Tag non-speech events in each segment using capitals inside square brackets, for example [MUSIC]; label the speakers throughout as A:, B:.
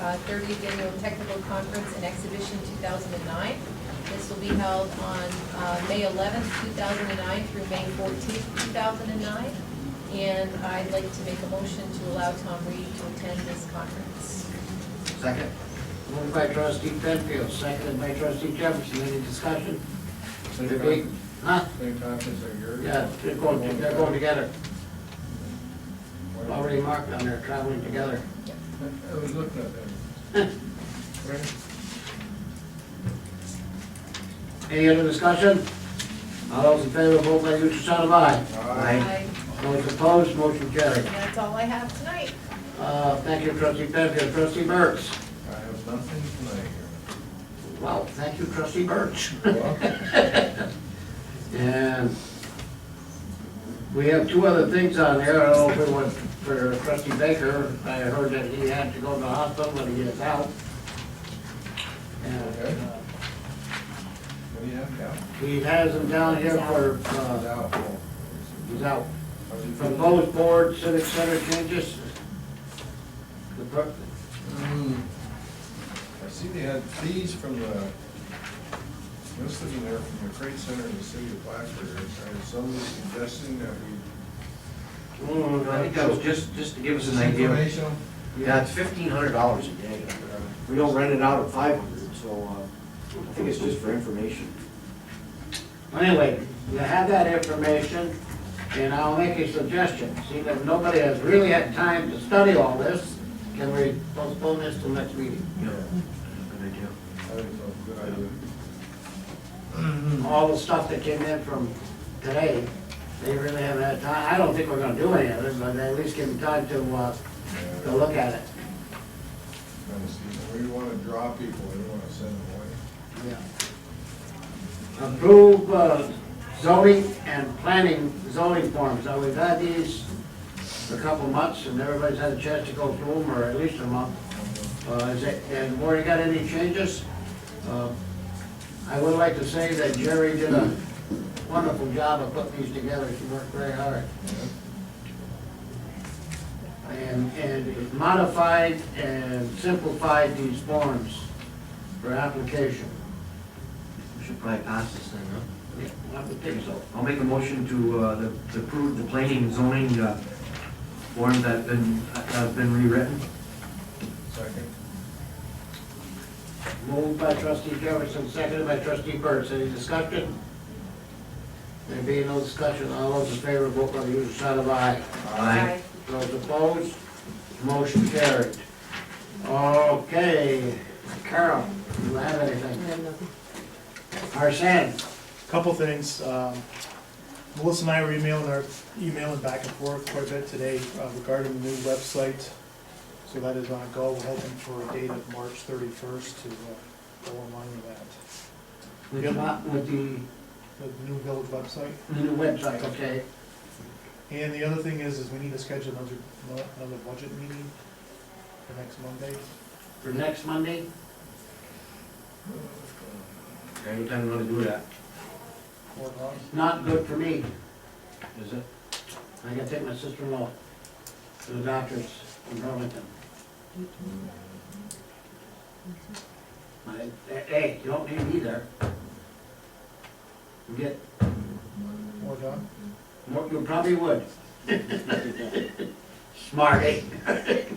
A: uh, 30th Annual Technical Conference and Exhibition 2009. This will be held on uh, May 11th, 2009 through May 14th, 2009. And I'd like to make a motion to allow Tom Reed to attend this conference.
B: Second.
C: Moved by trustee Penfield, seconded by trustee Jefferson. Any discussion? Mr. Beek? Huh?
B: Same conference are yours?
C: Yeah, they're going, they're going together. Already marked on there, traveling together.
B: I was looking at
C: Huh. [LAUGHS]
B: that. Right?
C: Any other discussion? All those in favor, vote by the usual sign of aye.
A: Aye.
C: Those opposed, motion carried.
A: And that's all I have tonight.
C: Uh, thank you, trustee Penfield. Trustee Burks?
B: I have nothing tonight.
C: Well, thank you, trustee Burks.
B: You're welcome.
C: And we have two other things on there. I don't know if it was for trustee Baker. I heard that he had to go to the hospital when he gets out. And uh,
B: Okay. What do you have down?
C: he has him down here for, uh,
B: Down.
C: he's out.
B: How's he
C: From
B: feeling?
C: those board, civic center changes. The per-
B: Hmm. I see they had fees from the, most of them there from the Trade Center in the city of Plattsburgh. And somebody suggesting that we.
C: Mm,
D: I think that was just, just to give us an idea.
B: Informational?
D: Yeah, it's fifteen hundred dollars a day. We don't rent it out at five hundred, so, uh, I think it's just for information.
C: Anyway, you have that information, and I'll make a suggestion. See, that nobody has really had time to study all this, can we postpone this till next meeting?
B: Yeah,
D: Good idea.
B: I think that's a good idea.
C: Hmm. All the stuff that came in from today, they really haven't had time, I don't think we're gonna do any of it, but at least give them time to, uh,
B: Yeah.
C: to look at it.
B: Kind of see, We want to draw people, we don't want to send them away.
C: Approve uh, zoning and planning zoning forms. Now, we've had these a couple months, and everybody's had a chance to go through them, or at least a month. Uh, is it- And Warren, you got any changes? Uh, I would like to say that Jerry did a wonderful job of putting these together. She worked very hard. And, and modified and simplified these forms for application.
D: We should probably pass this thing, huh?
C: I would think so.
D: I'll make a motion to, uh, the- to approve the planning and zoning, uh, form that been, that have been rewritten.
B: Second.
C: Moved by trustee Jefferson, seconded by trustee Burns. Any discussion? There being no discussion, all those in favor, vote by the usual sign of aye.
D: Aye.
C: Those opposed, motion carried. Okay, Carol, do you have anything? Arson,
E: Couple things. um, Melissa and I were emailing, our emailing back and forth quite a bit today uh, regarding the new website. So that is on go. We're hoping for a date of March thirty-first to uh, go online with that.
C: with
E: Yep.
C: the, with the
E: The new village website.
C: the new website, okay?
E: And the other thing is, is we need to schedule another, another budget meeting for next Monday.
C: For next Monday?
D: Anytime you wanna do that,
E: Or not.
C: Not good for me.
D: is it?
C: I gotta take my sister-in-law to the doctor's in Burlington. I- Hey, eh, you don't need me there. You Get,
E: Or not.
C: more- you probably would. [LAUGHS] Smart, eh?
B: And,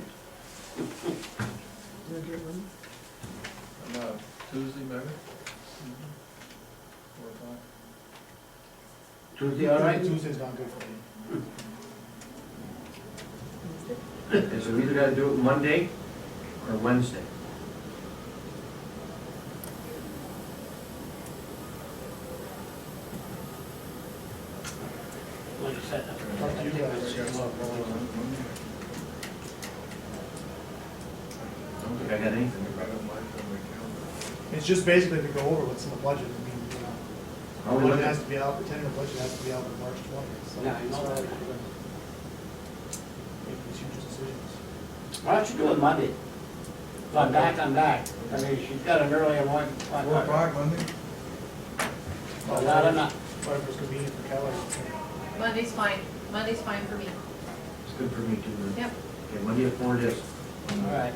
B: uh, Tuesday, maybe? Four o'clock.
C: Tuesday, all right?
E: Tuesday's not good for me.
D: Okay, so we either gotta do it Monday or Wednesday.
C: Like I said, I-
E: Up to you
B: I
E: guys.
B: got something going on Monday.
D: I don't think I got
B: I
D: any.
B: don't like on the calendar.
E: It's just basically to go over what's in the budget. I mean, you know,
D: Are we
E: The budget
D: looking,
E: has to be out, the tentative budget has to be out on March twentieth, so.
C: Yeah, I know that.
E: Making uh, these huge decisions.
C: Why don't you do it Monday? If I'm back, I'm back. I mean, she's got an earlier one. one-
B: Four o'clock Monday?
C: But not enough.
E: Whatever's convenient for Kelly.
A: Monday's fine. Monday's fine for me.
D: it's good for me too.
A: Yep.
D: Okay, Monday at four it is.
C: All right.